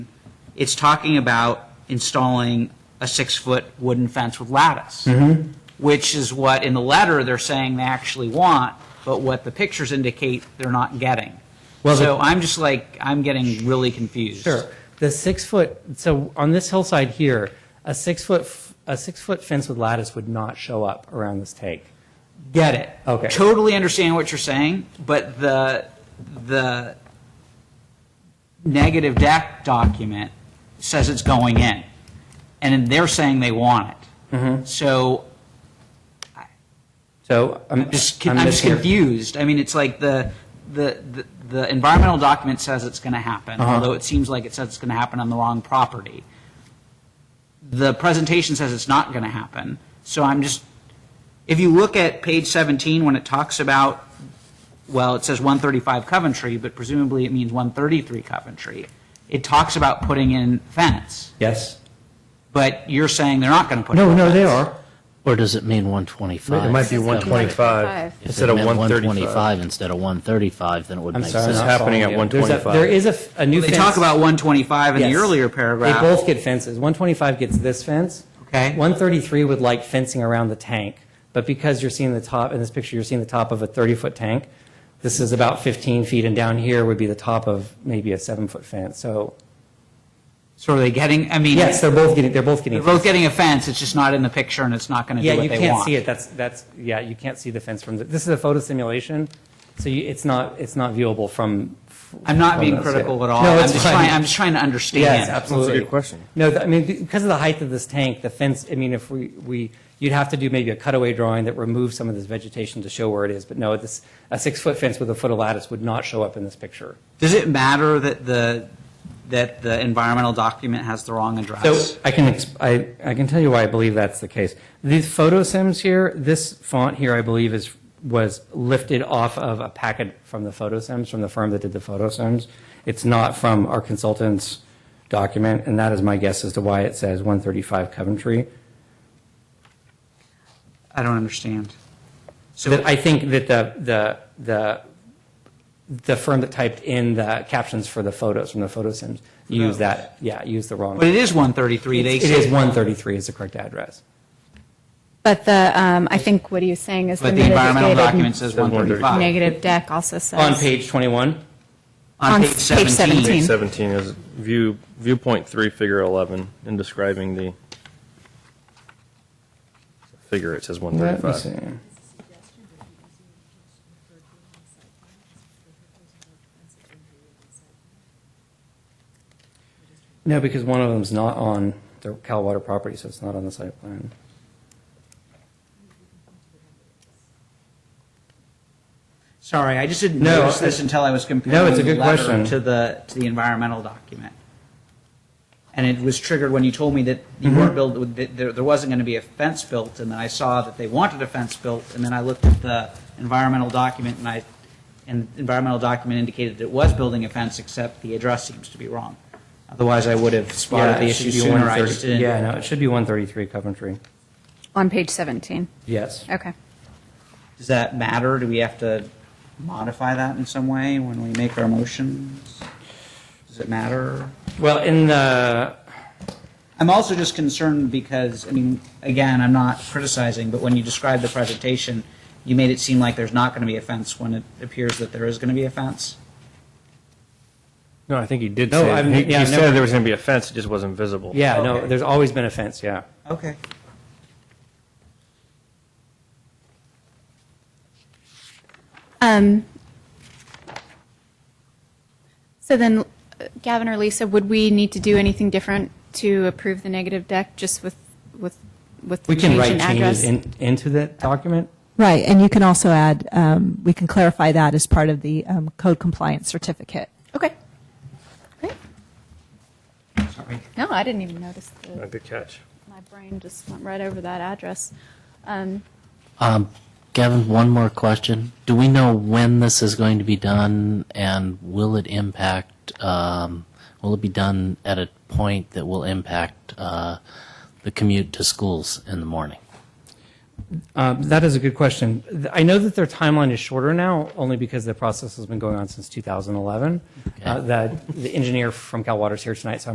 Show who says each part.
Speaker 1: it's talking about installing a six-foot wooden fence with lattice,
Speaker 2: Mm-hmm.
Speaker 1: which is what, in the letter, they're saying they actually want, but what the pictures indicate they're not getting.
Speaker 2: Well, the-
Speaker 1: So I'm just like, I'm getting really confused.
Speaker 2: Sure. The six foot, so on this hillside here, a six foot, f- a six foot fence with lattice would not show up around this take.
Speaker 1: Get it.
Speaker 2: Okay.
Speaker 1: Totally understand what you're saying, but the, the negative deck document says it's going in, and then they're saying they want it.
Speaker 2: Mm-hmm.
Speaker 1: So
Speaker 2: So I'm,
Speaker 1: just,
Speaker 2: I'm
Speaker 1: I'm just
Speaker 2: mishearing.
Speaker 1: confused. I mean, it's like the, the, the- the environmental document says it's going to happen,
Speaker 2: Uh-huh.
Speaker 1: although it seems like it says it's going to happen on the wrong property. The presentation says it's not going to happen, so I'm just, if you look at page 17, when it talks about, well, it says 135 Coventry, but presumably it means 133 Coventry. It talks about putting in fence,
Speaker 2: Yes.
Speaker 1: but you're saying they're not going to put in
Speaker 2: No,
Speaker 1: fence.
Speaker 2: no, they are.
Speaker 3: Or does it mean 125?
Speaker 4: It might be
Speaker 3: If
Speaker 4: 125
Speaker 3: it
Speaker 4: instead of
Speaker 3: meant
Speaker 4: 135.
Speaker 3: 125 instead of 135, then it would
Speaker 2: I'm
Speaker 3: make
Speaker 2: sorry.
Speaker 3: sense.
Speaker 4: This is
Speaker 2: not following
Speaker 4: happening at
Speaker 2: you. There's a-
Speaker 4: 125.
Speaker 2: There is a, f- a new
Speaker 1: They
Speaker 2: fence.
Speaker 1: talk about 125 in the
Speaker 2: Yes.
Speaker 1: earlier paragraph.
Speaker 2: They both get fences. 125 gets this fence.
Speaker 1: Okay.
Speaker 2: 133 would like fencing around the tank, but because you're seeing the top, in this picture, you're seeing the top of a 30-foot tank. This is about 15 feet, and down here would be the top of maybe a seven-foot fence. So
Speaker 1: So are they getting, I mean.
Speaker 2: yes, they're both getting, they're both getting.
Speaker 1: They're both getting a fence, it's just not in the picture and it's not going to
Speaker 2: Yeah,
Speaker 1: do what
Speaker 2: you
Speaker 1: they
Speaker 2: can't
Speaker 1: want.
Speaker 2: see it. That's, that's, yeah, you can't see the fence from, the- this is a photo simulation, so you, it's not, it's not viewable from.
Speaker 1: I'm not
Speaker 2: from
Speaker 1: being
Speaker 2: those,
Speaker 1: critical
Speaker 2: yeah.
Speaker 1: at all.
Speaker 2: No,
Speaker 1: I'm
Speaker 2: it's
Speaker 1: just
Speaker 2: fine.
Speaker 1: trying, I'm just trying to
Speaker 2: Yes,
Speaker 1: understand.
Speaker 2: absolutely.
Speaker 4: good question.
Speaker 2: No, th- I mean, because of the height of this tank, the fence, I mean, if we, we, you'd have to do maybe a cutaway drawing that removes some of this vegetation to show where it is, but no, this, a six-foot fence with a foot of lattice would not show up in this picture.
Speaker 1: Does it matter that the, that the environmental document has the wrong address?
Speaker 2: So I can, exp- I, I can tell you why I believe that's the case. These photo sims here, this font here, I believe is, was lifted off of a packet from the photo sims, from the firm that did the photo sims. It's not from our consultant's document, and that is my guess as to why it says 135 Coventry.
Speaker 1: I don't understand. So,
Speaker 2: That I think that the, the, the, the firm that typed in the captions for the photos from the photo sims used that, yeah, used the wrong.
Speaker 1: Oh. but it is 133, they
Speaker 2: It is
Speaker 1: say,
Speaker 2: 133 is the correct address.
Speaker 5: But the, um, I think what he was saying is the
Speaker 1: but the environmental document says
Speaker 5: mitigated
Speaker 4: Says 135.
Speaker 1: 135.
Speaker 5: negative deck also says.
Speaker 2: On page 21?
Speaker 1: On
Speaker 5: on
Speaker 1: page 17.
Speaker 5: page
Speaker 4: Page
Speaker 5: 17.
Speaker 4: 17 is view, viewpoint 3, figure 11, in describing the figure, it says
Speaker 2: Let me
Speaker 4: 135.
Speaker 2: see. No, because one of them's not on the Cal Water property, so it's not on the site plan.
Speaker 1: Sorry, I just didn't
Speaker 2: No,
Speaker 1: notice this
Speaker 2: it's-
Speaker 1: until I was comparing.
Speaker 2: No, it's a
Speaker 1: the
Speaker 2: good
Speaker 1: letter
Speaker 2: question.
Speaker 1: To the, to the environmental document. And it was triggered when you told me that
Speaker 2: Mm-hmm.
Speaker 1: you weren't built, that there, there wasn't going to be a fence built, and then I saw that they wanted a fence built, and then I looked at the environmental document, and I, and the environmental document indicated that it was building a fence, except the address seems to be wrong. Otherwise, I would have spotted the
Speaker 2: it should
Speaker 1: issue
Speaker 2: be
Speaker 1: sooner, I
Speaker 2: 130
Speaker 1: just didn't.
Speaker 2: Yeah, no, it should be 133 Coventry.
Speaker 5: On page 17.
Speaker 2: Yes.
Speaker 5: Okay.
Speaker 1: Does that matter? Do we have to modify that in some way when we make our motions? Does it matter?
Speaker 2: Well, in the,
Speaker 1: I'm also just concerned because, I mean, again, I'm not criticizing, but when you described the presentation, you made it seem like there's not going to be a fence when it appears that there is going to be a fence.
Speaker 4: No, I think he did
Speaker 2: No,
Speaker 4: say,
Speaker 2: I've-
Speaker 4: that. he
Speaker 2: yeah,
Speaker 4: he
Speaker 2: I've never-
Speaker 4: said there was going to be a fence, it just wasn't visible.
Speaker 2: yeah, no,
Speaker 1: Okay.
Speaker 2: there's always been a fence, yeah.
Speaker 1: Okay.
Speaker 5: Um, so then, uh, Gavin or Lisa, would we need to do anything different to approve the negative deck just with, with, with the
Speaker 2: We can
Speaker 5: change
Speaker 2: write
Speaker 5: in address?
Speaker 2: changes in- into that document.
Speaker 6: Right, and you can also add, um, we can clarify that as part of the um, code compliance certificate.
Speaker 5: Okay. Great.
Speaker 1: Sorry.
Speaker 5: No, I didn't even notice. The,
Speaker 4: Good catch.
Speaker 5: my brain just went right over that address. Um,
Speaker 3: Um, Gavin, one more question. Do we know when this is going to be done, and will it impact, um, will it be done at a point that will impact uh, the commute to schools in the morning?
Speaker 2: Um, That is a good question. Th- I know that their timeline is shorter now, only because the process has been going on since 2011. Uh, The the engineer from Cal Water's here tonight, so I'm